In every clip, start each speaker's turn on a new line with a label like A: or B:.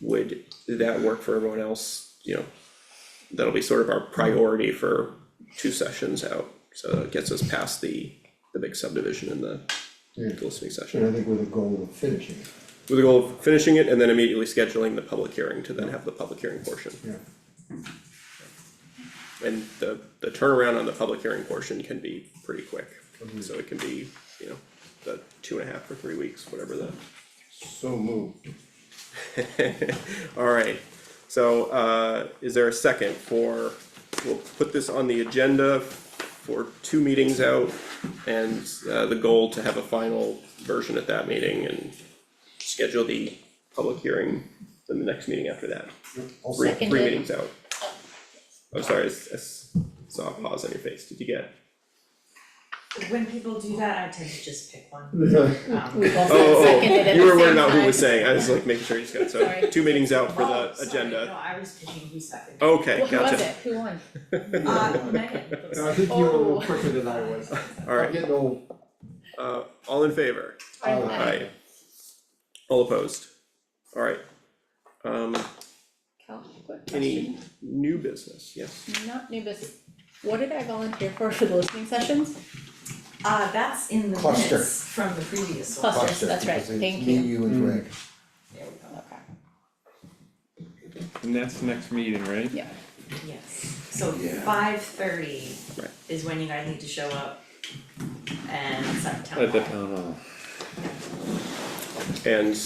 A: would that work for everyone else, you know? That'll be sort of our priority for two sessions out, so it gets us past the, the big subdivision and the
B: Yeah.
A: the listening session.
B: And I think with a goal of finishing it,
A: With the goal of finishing it and then immediately scheduling the public hearing to then have the public hearing portion.
B: yeah.
A: And the, the turnaround on the public hearing portion can be pretty quick,
B: Mm-hmm.
A: so it can be, you know, the two and a half or three weeks, whatever the.
B: So moved.
A: Alright, so, uh, is there a second for, we'll put this on the agenda for two meetings out. And, uh, the goal to have a final version at that meeting and schedule the public hearing in the next meeting after that.
B: I'll
A: Three,
B: second,
A: three
C: Seconded.
A: meetings out. I'm sorry, I s- I s- saw a pause on your face, did you get?
D: When people do that, I tend to just pick one. Um,
C: We
A: Oh, oh,
C: both
A: oh,
C: seconded at
A: you
C: the
A: were worried
C: same
A: about who was
C: time.
A: saying, I was like making sure you just got, so,
C: Sorry.
A: two meetings out for
D: oh,
A: the
D: sorry, No,
A: agenda. Oh.
D: I was picking who seconded.
A: Okay,
C: Well,
A: gotcha.
C: Who was it? Who won?
D: Uh, Megan.
B: I think you were a little quicker than I was.
C: Oh.
A: Alright.
B: I'm getting old.
A: Uh, all in favor?
B: Aye.
A: Aye. All opposed? Alright. Um,
C: Cal, quick
A: any
C: question,
A: new business? Yes.
C: not new business, what did I volunteer for for the listening sessions?
D: Uh, that's in the
B: Cluster.
D: minutes from the previous one.
C: Cluster. that's right,
B: Because it's
C: thank
B: me,
C: you.
B: you and Greg.
D: There we go,
C: Okay,
E: And that's next meeting, right?
C: yeah,
D: yes. So
B: Yeah.
D: five thirty
A: Right.
D: is when you guys need to show up and set the
E: At
D: town
E: the
D: hall.
E: uh, town hall.
A: And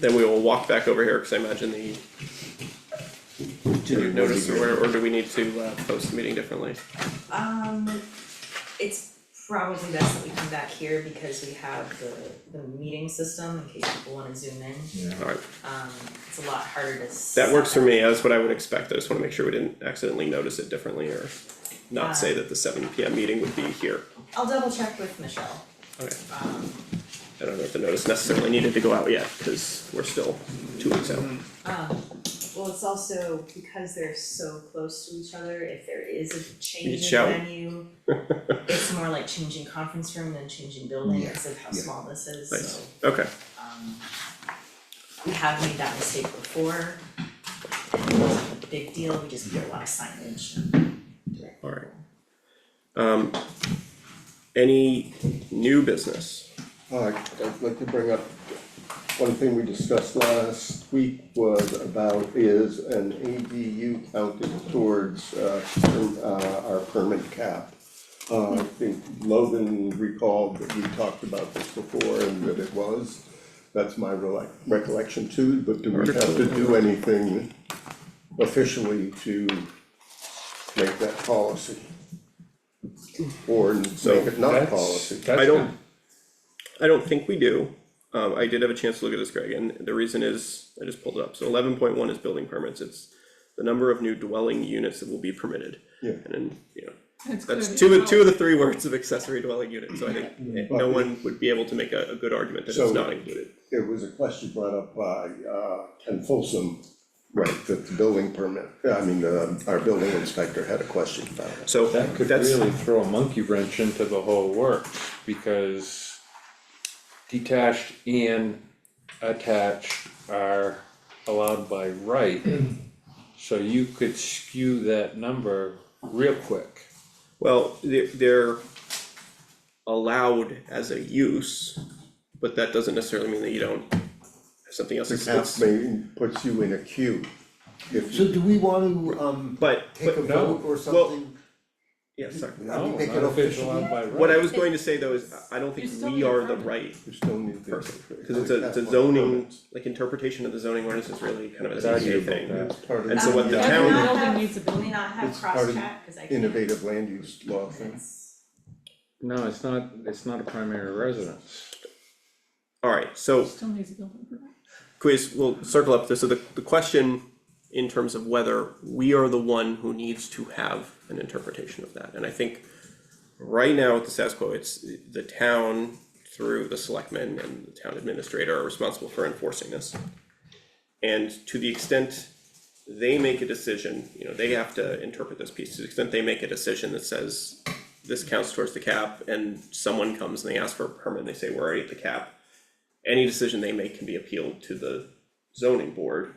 A: then we will walk back over here, cause I imagine the. Did you notice or or do we need to uh post the meeting differently?
D: Um, it's probably best that we come back here because we have the, the meeting system in case people wanna zoom in.
B: Yeah.
A: Alright,
D: Um, it's a lot harder to
A: that works for
D: set.
A: me, that's what I would expect, I just wanna make sure we didn't accidentally notice it differently or. Not say that the seven P M meeting would be here,
D: I'll double check with Michelle,
A: okay,
D: um,
A: I don't know if the notice necessarily needed to go out yet, cause we're still two weeks out.
D: Um, well, it's also because they're so close to each other, if there is a change
A: Reach
D: in
A: out.
D: venue, it's more like changing conference room than changing building
B: Yeah,
D: because of how
B: yeah.
D: small this is,
A: Nice.
D: so,
A: Okay,
D: um, we have made that mistake before. and It wasn't a big deal, we just put a lot of signage.
A: alright. Um, any new business?
F: Uh, I'd like to bring up, one thing we discussed last week was about is an ADU counted towards, uh, per- uh, our permit cap. Uh, I think Logan recalled that we talked about this before and that it was, that's my rele- recollection too, but do we have to do anything officially to make that policy? Or make it not
E: That's-
F: policy?
E: that's
A: I don't-
E: been-
A: I don't think we do. Um, I did have a chance to look at this, Greg, and the reason is, I just pulled it up, so eleven point one is building permits, it's the number of new dwelling units that will be permitted.
F: Yeah.
A: And then, you know, that's two of the, two of the three words of accessory dwelling unit, so I think eh, no one would be able to make a, a good argument that it's
F: So-
A: not included.
F: It was a question brought up by, uh, Ken Folsom. Right, that the building permit, I mean, uh, our building inspector had a question about it.
A: So
E: That could
A: that's,
E: really throw a monkey wrench into the whole works, because detached and attached are allowed by right. So you could skew that number real quick.
A: well, they're, they're allowed as a use, but that doesn't necessarily mean that you don't have something else.
F: The
A: that's-
F: cap may puts you in a queue. If
B: So
F: you,
B: do we wanna, um,
A: But,
B: take a
A: but,
E: no,
B: vote or
A: well-
B: something?
A: yeah, sorry.
B: How do
E: No,
B: we make
E: not
B: it
E: if it's
B: official?
E: allowed by right.
A: What I was going to say though is, I- I don't
C: You
A: think
C: still
A: we
C: need a
A: are the
C: permit.
A: right
F: you still need the.
A: person, cause it's a, it's a zoning, like interpretation of the zoning ordinance is really kind of a
E: It's
A: ZBA
E: arguable,
A: thing.
E: yeah.
F: It's part
A: And
F: of
A: so what the
D: Um,
A: town-
D: we may not have-
C: Building needs a building.
D: We may not have
F: It's part of
D: cross-chat, cause I can't.
F: innovative land use law thing.
E: No, it's not, it's not a primary residence.
A: Alright, so
C: still needs a building permit.
A: quiz, we'll circle up this, so the, the question in terms of whether we are the one who needs to have an interpretation of that, and I think right now with the status quo, it's the town through the selectmen and the town administrator are responsible for enforcing this. And to the extent they make a decision, you know, they have to interpret this piece, to the extent they make a decision that says this counts towards the cap, and someone comes and they ask for a permit, and they say, we're already at the cap. Any decision they make can be appealed to the zoning board.